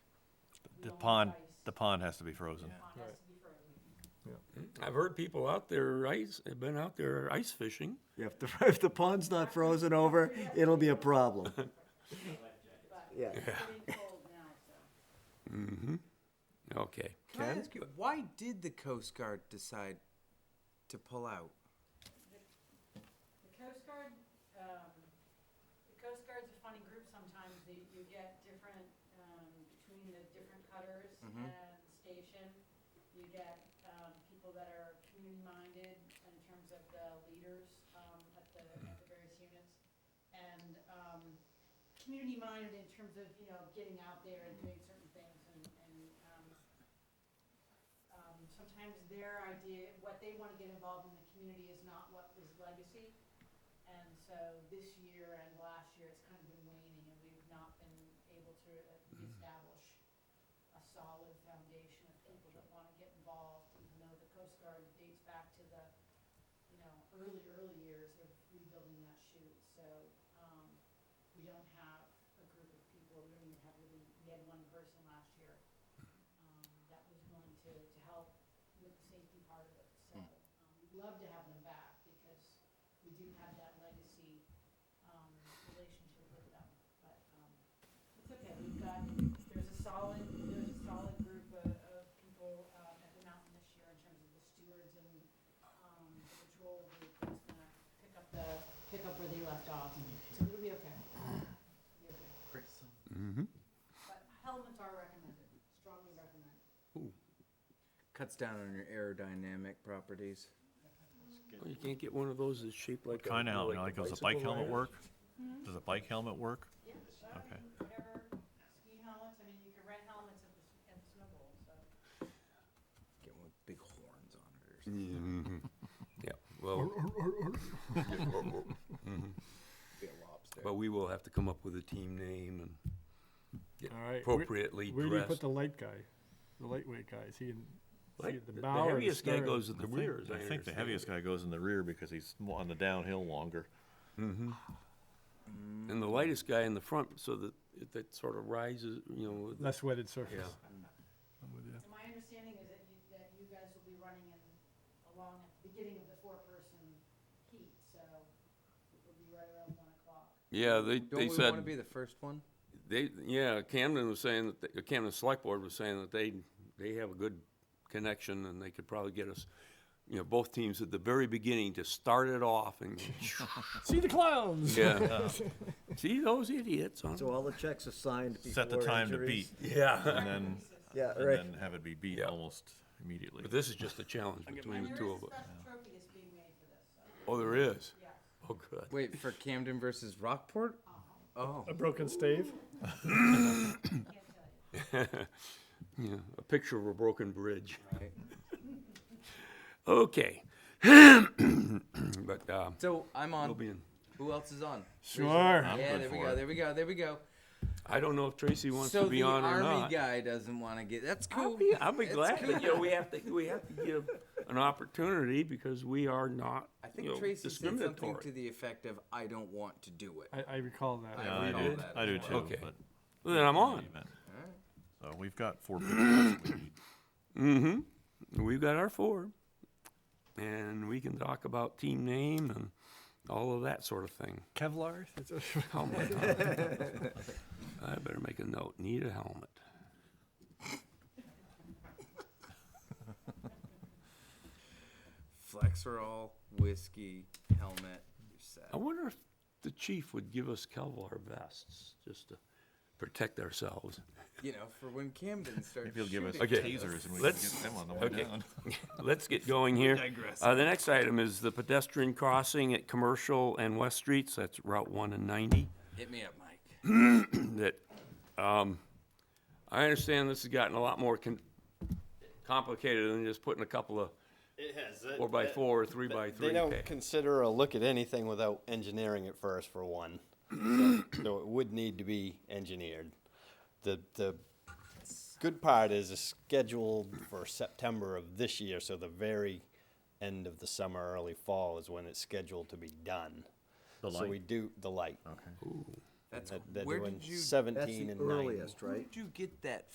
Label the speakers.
Speaker 1: pond, the pond has to be frozen.
Speaker 2: has to be frozen.
Speaker 3: I've heard people out there ice, have been out there ice fishing.
Speaker 4: If the, if the pond's not frozen over, it'll be a problem. Yeah.
Speaker 2: It's getting cold now, so.
Speaker 3: Okay.
Speaker 5: Can I ask you, why did the Coast Guard decide to pull out?
Speaker 2: The Coast Guard, um, the Coast Guard's a funny group sometimes, they, you get different, um, between the different cutters and station. You get, um, people that are community-minded in terms of the leaders, um, at the, at the various units. And, um, community-minded in terms of, you know, getting out there and doing certain things and, and, um, um, sometimes their idea, what they wanna get involved in the community is not what is legacy. And so this year and last year, it's kind of been waning, and we've not been able to uh, establish a solid foundation of people that wanna get involved, even though the Coast Guard dates back to the, you know, early, early years of rebuilding that chute, so, um, we don't have a group of people, we don't even have really, we had one person last year, um, that was willing to, to help with the safety part of it, so, um, we'd love to have them back, because we do have that legacy, um, relationship with them, but, um, it's okay, we've got, there's a solid, there's a solid group of, of people, um, at the mountain this year in terms of the stewards and, um, the patrol group that's gonna pick up the, pick up where they left off, so it'll be okay. It'll be okay. But helmets are recommended, strongly recommended.
Speaker 5: Cuts down on your aerodynamic properties.
Speaker 3: Well, You can't get one of those that's shaped like a.
Speaker 1: Kind of,
Speaker 3: like
Speaker 1: like, does a bike
Speaker 3: bicycle
Speaker 1: helmet
Speaker 3: rider.
Speaker 1: work? Does a bike helmet work?
Speaker 2: Yeah, I
Speaker 1: Okay.
Speaker 2: mean, whatever, ski helmets, I mean, you can rent helmets at the, s- at the snow bowl, so.
Speaker 5: Get one with big horns on it or something.
Speaker 3: Yeah, well,
Speaker 5: Be a lobster.
Speaker 3: but we will have to come up with a team name and get
Speaker 6: All right, where-
Speaker 3: appropriately
Speaker 6: Where do you put
Speaker 3: dressed.
Speaker 6: the light guy? The lightweight guy, is he in? is he
Speaker 3: Like,
Speaker 6: at
Speaker 3: The the
Speaker 6: bow or the
Speaker 3: heaviest guy
Speaker 6: stern?
Speaker 3: goes
Speaker 1: I
Speaker 3: in the
Speaker 1: think-
Speaker 3: rear, as I
Speaker 1: I think the
Speaker 3: understand
Speaker 1: heaviest
Speaker 3: it.
Speaker 1: guy goes in the rear because he's mo- on the downhill longer.
Speaker 3: And the lightest guy in the front, so that, it- that sort of rises, you know. with the-
Speaker 6: Less wetted surface.
Speaker 3: Yeah.
Speaker 6: I'm with you.
Speaker 2: And my understanding is that you, that you guys will be running in, along at the beginning of the four-person heat, so it'll be right around one o'clock.
Speaker 3: Yeah, they,
Speaker 5: Don't
Speaker 3: they
Speaker 5: we wanna be
Speaker 3: said,
Speaker 5: the first one?
Speaker 3: they, yeah, Camden was saying, that they- the Camden Select Board was saying that they, they have a good connection and they could probably get us, you know, both teams at the very beginning to start it off and,
Speaker 6: See the clowns!
Speaker 3: yeah. See those idiots, huh?
Speaker 4: So all the checks are signed before
Speaker 1: Set the time to beat
Speaker 4: injuries?
Speaker 3: Yeah.
Speaker 1: and then,
Speaker 4: Yeah,
Speaker 1: and
Speaker 4: right.
Speaker 1: then have it be beat
Speaker 3: Yeah.
Speaker 1: almost immediately.
Speaker 3: But this is just a challenge between
Speaker 2: And
Speaker 3: the
Speaker 2: there
Speaker 3: two
Speaker 2: is
Speaker 3: of
Speaker 2: a
Speaker 3: us.
Speaker 2: special trophy that's being made for this, so,
Speaker 3: Oh, there is?
Speaker 2: yeah.
Speaker 3: Oh, good.
Speaker 5: Wait, for Camden versus Rockport? Oh,
Speaker 6: A broken stave?
Speaker 3: Yeah, a picture of a broken bridge.
Speaker 5: right.
Speaker 3: Okay. But, uh,
Speaker 5: So I'm
Speaker 3: we'll
Speaker 5: on.
Speaker 3: be in.
Speaker 5: Who else is on?
Speaker 6: Sure.
Speaker 5: Yeah,
Speaker 1: good
Speaker 5: there we
Speaker 1: for
Speaker 5: go,
Speaker 1: it.
Speaker 5: there we go, there we go.
Speaker 3: I don't know if Tracy wants
Speaker 5: So
Speaker 3: to be
Speaker 5: the
Speaker 3: on or
Speaker 5: army
Speaker 3: not.
Speaker 5: guy doesn't wanna get, that's
Speaker 3: I'll
Speaker 5: cool.
Speaker 3: be, I'll be
Speaker 5: It's
Speaker 3: glad, but, you know,
Speaker 5: cool.
Speaker 3: we have to, we have to give an opportunity because we are not,
Speaker 5: I
Speaker 3: you know,
Speaker 5: think Tracy said something to
Speaker 3: discriminatory.
Speaker 5: the effect of, I don't want to do it.
Speaker 6: I, I recall that.
Speaker 5: I
Speaker 1: I
Speaker 5: read
Speaker 1: do,
Speaker 5: all that.
Speaker 1: I do too,
Speaker 3: Okay.
Speaker 1: but.
Speaker 3: Then I'm on.
Speaker 1: So we've got four people we need.
Speaker 3: Mm-hmm. We've got our four. And we can talk about team name and all of that sort of thing.
Speaker 6: Kevlar?
Speaker 3: Helmet. huh? I better make a note. Need a helmet.
Speaker 5: Flexerol, whiskey, helmet, you're set.
Speaker 3: I wonder if the chief would give us Kevlar vests just to protect ourselves.
Speaker 5: You know, for when Camden starts
Speaker 1: Maybe he'll give us
Speaker 3: Okay.
Speaker 1: tasers and we can
Speaker 3: Let's-
Speaker 1: get them on the way
Speaker 3: okay.
Speaker 1: down.
Speaker 3: Let's get going here.
Speaker 5: digress.
Speaker 3: Uh, the next item is the pedestrian crossing at Commercial and West Streets. That's Route one and ninety.
Speaker 5: Hit me up, Mike.
Speaker 3: That, um, I understand this has gotten a lot more con- complicated than just putting a couple of
Speaker 7: It has. That,
Speaker 3: four by
Speaker 7: that-
Speaker 3: four or three by
Speaker 7: that-
Speaker 3: three.
Speaker 7: They don't
Speaker 3: pa-
Speaker 7: consider a look at anything without engineering it first, for one. So, so it would need to be engineered. The the good part is it's scheduled for September of this year, so the very end of the summer, early fall is when it's scheduled to be done.
Speaker 1: The
Speaker 7: So we
Speaker 1: light,
Speaker 7: do the light.
Speaker 5: That's
Speaker 7: That, they're
Speaker 5: where
Speaker 7: doing
Speaker 5: did you?
Speaker 4: That's
Speaker 7: 17
Speaker 4: the
Speaker 7: and 90.
Speaker 4: earliest,
Speaker 5: Where
Speaker 4: right?
Speaker 5: did you get that